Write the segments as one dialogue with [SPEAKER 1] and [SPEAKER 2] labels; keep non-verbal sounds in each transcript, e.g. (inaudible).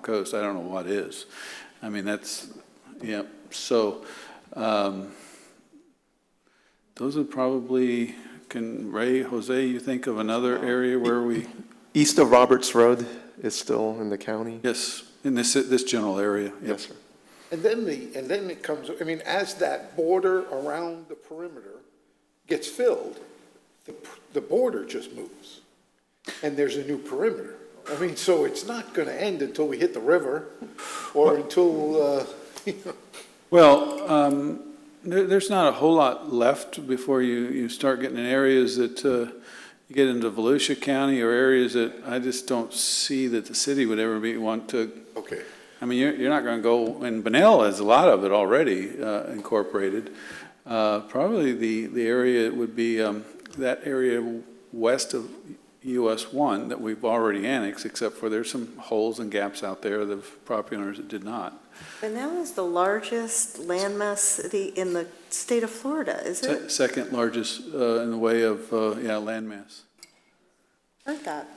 [SPEAKER 1] coast, I don't know what is. I mean, that's, yeah, so, um, those are probably, can, Ray, Jose, you think of another area where we,
[SPEAKER 2] East of Roberts Road is still in the county?
[SPEAKER 1] yes, in this, this general area? yep.
[SPEAKER 2] Yes, sir.
[SPEAKER 3] And then the, and then it comes, I mean, as that border around the perimeter gets filled, the, the border just moves. And there's a new perimeter. I mean, so it's not gonna end until we hit the river or until, uh, you know,
[SPEAKER 1] Well, um, there, there's not a whole lot left before you, you start getting in areas that, uh, you get into Volusia County or areas that I just don't see that the city would ever be, want to
[SPEAKER 3] okay.
[SPEAKER 1] I mean, you're, you're not going to go, and Benel has a lot of it already uh, incorporated. Uh, Probably the, the area would be um, that area west of US 1 that we've already annexed, except for there's some holes and gaps out there of property owners that did not.
[SPEAKER 4] Pinal is the largest landmass city in the state of Florida, is
[SPEAKER 1] Se-
[SPEAKER 4] it?
[SPEAKER 1] Second largest uh, in the way of, uh, yeah, landmass.
[SPEAKER 4] Heard that.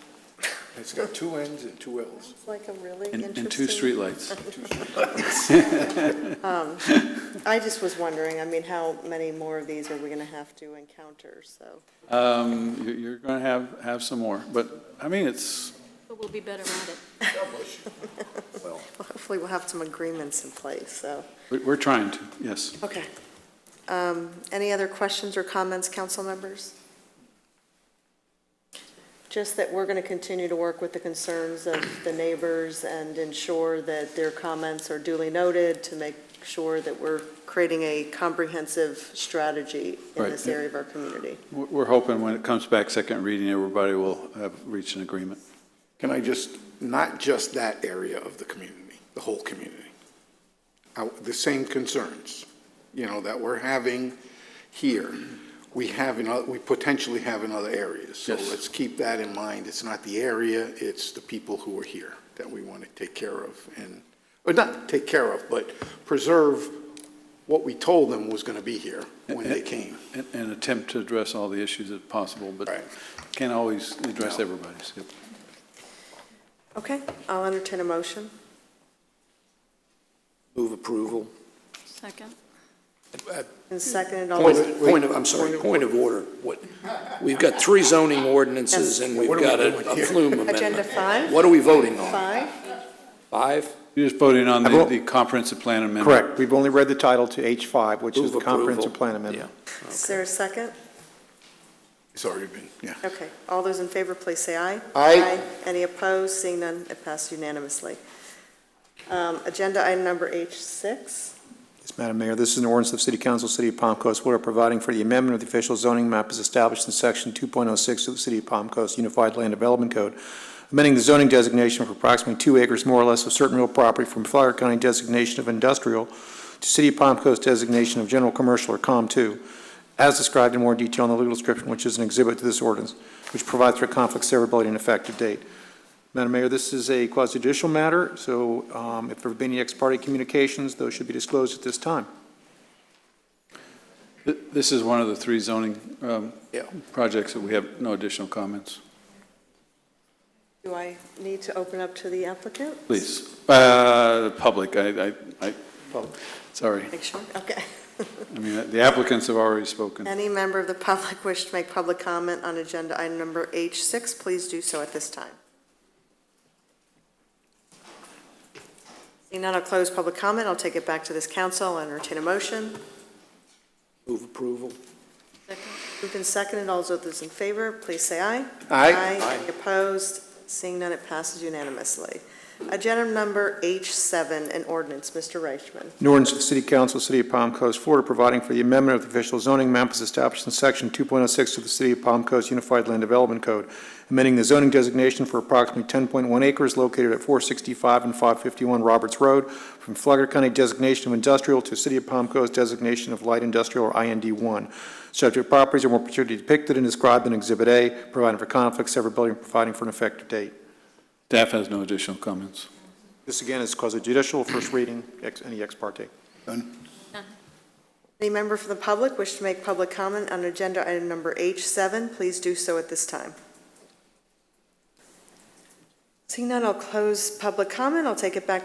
[SPEAKER 3] It's got two Ns and two Ls.
[SPEAKER 4] It's like a really
[SPEAKER 1] And-
[SPEAKER 4] interesting.
[SPEAKER 1] and two
[SPEAKER 4] (laughs)
[SPEAKER 1] streetlights.
[SPEAKER 4] Um, I just was wondering, I mean, how many more of these are we going to have to encounter, so.
[SPEAKER 1] Um, you- You're going to have, have some more, but, I mean, it's,
[SPEAKER 5] But we'll be better at it.
[SPEAKER 4] Hopefully, we'll have some agreements in place, so.
[SPEAKER 1] we- we're trying to, yes.
[SPEAKER 4] Okay. Um, Any other questions or comments, council members? Just that we're going to continue to work with the concerns of the neighbors and ensure that their comments are duly noted to make sure that we're creating a comprehensive strategy in
[SPEAKER 1] Right.
[SPEAKER 4] this area of our community.
[SPEAKER 1] We're- We're hoping when it comes back second reading, everybody will have reached an agreement.
[SPEAKER 3] Can I just, not just that area of the community, the whole community. I- The same concerns, you know, that we're having here, we have in, oth- we potentially have in other areas. So
[SPEAKER 1] Yes.
[SPEAKER 3] let's keep that in mind. It's not the area, it's the people who are here that we want to take care of and, or not take care of, but preserve what we told them was going to be here when they came.
[SPEAKER 1] and- and attempt to address all the issues if possible, but
[SPEAKER 3] Right.
[SPEAKER 1] can't always address
[SPEAKER 3] No.
[SPEAKER 1] everybody's. Yep.
[SPEAKER 4] Okay, I'll entertain a motion.
[SPEAKER 6] Move approval.
[SPEAKER 5] Second.
[SPEAKER 4] And seconded, all
[SPEAKER 6] Point
[SPEAKER 4] those,
[SPEAKER 6] of, point of, I'm sorry, point of order. What, we've got three zoning ordinances and we've
[SPEAKER 3] What are we
[SPEAKER 6] got a
[SPEAKER 3] doing
[SPEAKER 6] a
[SPEAKER 3] here?
[SPEAKER 6] flume amendment.
[SPEAKER 4] Agenda five?
[SPEAKER 6] What are we voting on?
[SPEAKER 4] five?
[SPEAKER 6] Five?
[SPEAKER 1] You're just voting on
[SPEAKER 2] I
[SPEAKER 1] the
[SPEAKER 2] will-
[SPEAKER 1] the comprehensive plan amendment.
[SPEAKER 2] Correct. We've only read the title to H5, which is
[SPEAKER 6] Move
[SPEAKER 2] the comprehensive
[SPEAKER 6] approval.
[SPEAKER 2] plan amendment.
[SPEAKER 4] Is there a second?
[SPEAKER 3] It's already been, yeah.
[SPEAKER 4] Okay, all those in favor, please say aye.
[SPEAKER 3] Aye.
[SPEAKER 4] Any opposed? Seeing none, it passed unanimously. Um, Agenda item number H6,
[SPEAKER 2] Yes, Madam Mayor, this is an ordinance of City Council, City of Palm Coast, Florida, providing for the amendment of the official zoning map as established in Section 2.06 of the City of Palm Coast Unified Land Development Code, amending the zoning designation for approximately two acres more or less of certain real property from Flagler County designation of industrial to City of Palm Coast designation of general commercial or COM2, as described in more detail in the legal description, which is an exhibit to this ordinance, which provides for conflict severability and effective date. Madam Mayor, this is a quasi-judicial matter, so um, if there have been any ex parte communications, those should be disclosed at this time.
[SPEAKER 1] Th- This is one of the three zoning um,
[SPEAKER 3] Yeah.
[SPEAKER 1] projects that we have no additional comments.
[SPEAKER 4] do I need to open up to the applicant?
[SPEAKER 1] Please, Uh, public, I, I, I, sorry.
[SPEAKER 4] Make sure, okay. (laughs)
[SPEAKER 1] I mean, the applicants have already spoken.
[SPEAKER 4] Any member of the public wish to make public comment on agenda item number H6, please do so at this time. Seeing none, I'll close public comment. I'll take it back to this council. I'll entertain a motion.
[SPEAKER 6] Move approval.
[SPEAKER 5] Second.
[SPEAKER 4] Moved and seconded, all those in favor, please say aye.
[SPEAKER 2] Aye.
[SPEAKER 4] Any opposed? Seeing none, it passes unanimously. Agenda number H7, an ordinance, Mr. Reichman.
[SPEAKER 2] An ordinance of the City Council, City of Palm Coast, Florida, providing for the amendment of the official zoning map as established in Section 2.06 of the City of Palm Coast Unified Land Development Code, amending the zoning designation for approximately 10.1 acres located at 465 and 551 Roberts Road from Flagler County designation of industrial to City of Palm Coast designation of light industrial or IND1. Subject properties are more particularly depicted and described in Exhibit A, providing for conflict severability and providing for an effective date.
[SPEAKER 1] Staff has no additional comments.
[SPEAKER 2] This again is quasi judicial, first reading, ex- any ex parte.
[SPEAKER 4] Any member from the public wish to make public comment on agenda item number H7, please do so at this time. Seeing none, I'll close public comment. I'll take it back